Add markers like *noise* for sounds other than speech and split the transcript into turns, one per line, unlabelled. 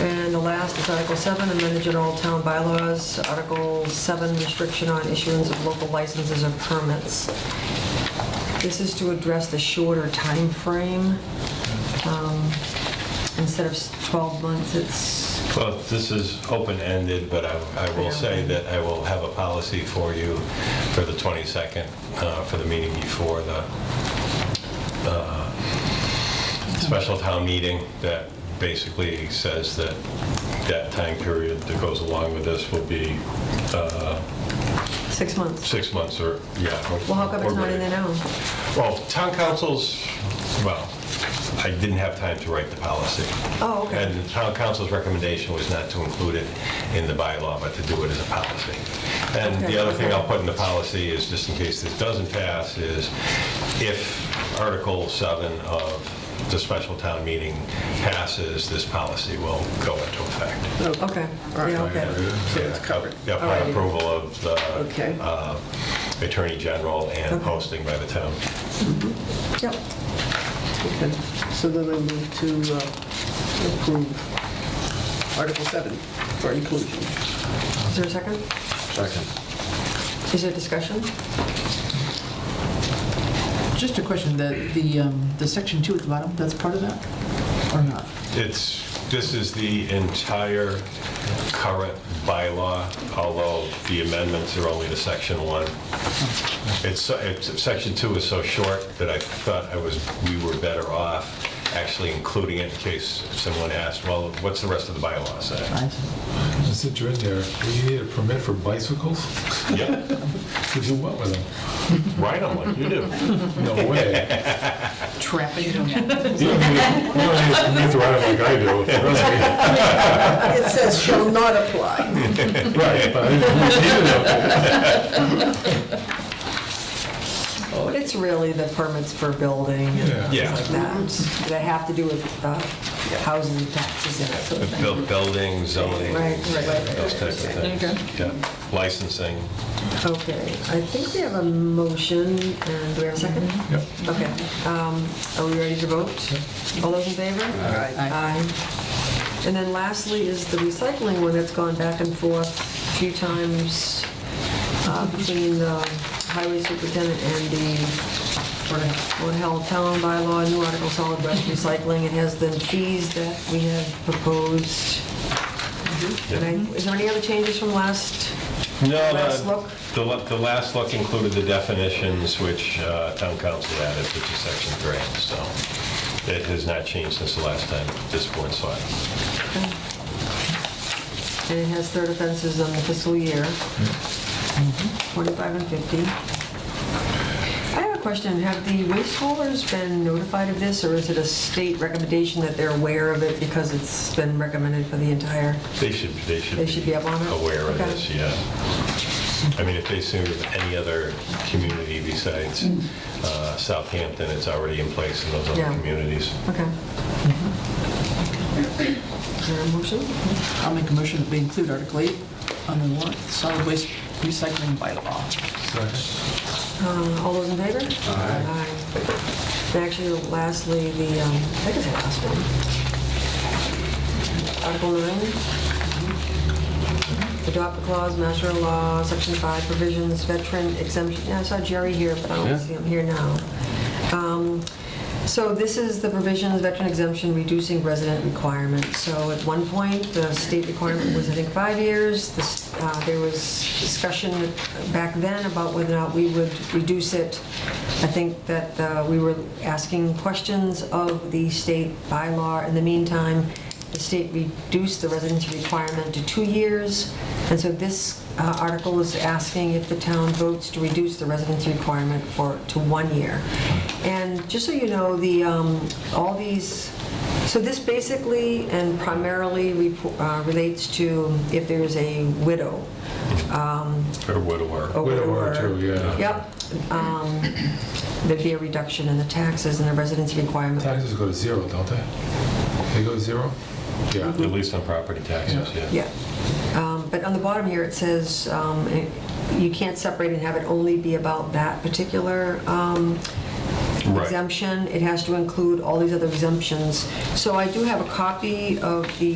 And the last is Article 7, amend the general town bylaws, Article 7, restriction on issuance of local licenses or permits. This is to address the shorter time frame. Um, Instead of s- 12 months, it's,
Well, this is open-ended, but I I will say that I will have a policy for you for the 22nd, uh, for the meeting before the uh, special town meeting that basically says that that time period that goes along with this will be uh,
six months.
six months or, yeah. or-
Well, how come it's
or
not in there
greater.
now?
Well, town councils, well, I didn't have time to write the policy.
Oh, okay.
And the town council's recommendation was not to include it in the bylaw, but to do it as a policy. And
Okay.
the other thing I'll put in the policy is, just in case this doesn't pass, is if Article 7 of the special town meeting passes, this policy will go into effect.
Okay, yeah, okay.
So it's covered. Yeah, upon
Alrighty.
approval of the
Okay.
uh, Attorney General and
Okay.
posting by the town.
Yep.
Okay, so then I move to uh, approve Article 7 for inclusion.
Is there a second?
Second.
Is there discussion?
Just a question, the, the, um, the section two at the bottom, that's part of that or not?
It's, this is the entire current bylaw, although the amendments are only to section one. It's, so- it's, section two is so short that I thought I was, we were better off actually including it in case someone asked, well, what's the rest of the bylaw say?
I see.
Since you're in there, you need a permit for bicycles?
Yeah,
To do what with them?
write them like you do.
No way.
Trapping.
You don't need you don't need a permit to ride them like I do.
*laughs*
trust
It says shall not apply.
me. *laughs* Right, but I didn't need it up there.
It's really the permits for building and
Yeah.
things like that, that have to do with uh, houses and taxes and that sort of thing.
Built Buildings, zoning,
Right, right, right.
those types of things.
Okay.
Yeah, Licensing.
Okay, I think we have a motion, and do we have a second?
Yep.
Okay, um, are we ready to vote? All those in favor?
Aye.
Aye. And then lastly is the recycling one that's gone back and forth a few times uh, between the highway superintendent and the Board of Health Town bylaw, new article solid waste recycling. It has the fees that we have proposed. And I- Is there any other changes from last?
No,
Last look?
the- the, la- the last look included the definitions which uh, town council added, which is section three, so it has not changed since the last time this board saw it.
And it has third offenses on the fiscal year, 45 and 50. I have a question, have the waste haulers been notified of this, or is it a state recommendation that they're aware of it because it's been recommended for the entire?
They should, they should.
They should be up on it?
Aware of
Okay.
this, yeah. I mean, if they serve any other community besides uh, Southampton, it's already in place in those other
Mm. Yeah.
communities.
Okay. Is there a motion?
I'll make a motion that we include Article eight on the warrant, solid waste recycling bylaw.
Uh, All those in favor? Aye. And actually, lastly, the, um, I think it's the last one. Article 9. Adopt the clause, master of law, section 5 provisions, veteran exemption. Yeah, I saw Jerry here, but I don't see him here now. Um, So this is the provisions, veteran exemption, reducing resident requirement. So at one point, the state requirement was, I think, five years. This, uh, There was discussion back then about whether or not we would reduce it. I think that uh, we were asking questions of the state bylaw. In the meantime, the state reduced the residency requirement to two years. And so this uh, article is asking if the town votes to reduce the residency requirement for, to one year. And just so you know, the, um, all these, so this basically and primarily repo- uh, relates to if there is a widow. um,
Or widower.
a
Widower too, yeah.
Yep. um, There'd be a reduction in the taxes and the residency requirement.
Taxes go to zero, don't they? They go to zero? Yeah.
At least on property taxes, yeah.
Yeah, Um, but on the bottom here, it says um, it- you can't separate and have it only be about that particular um,
Right.
exemption. It has to include all these other exemptions. So I do have a copy of the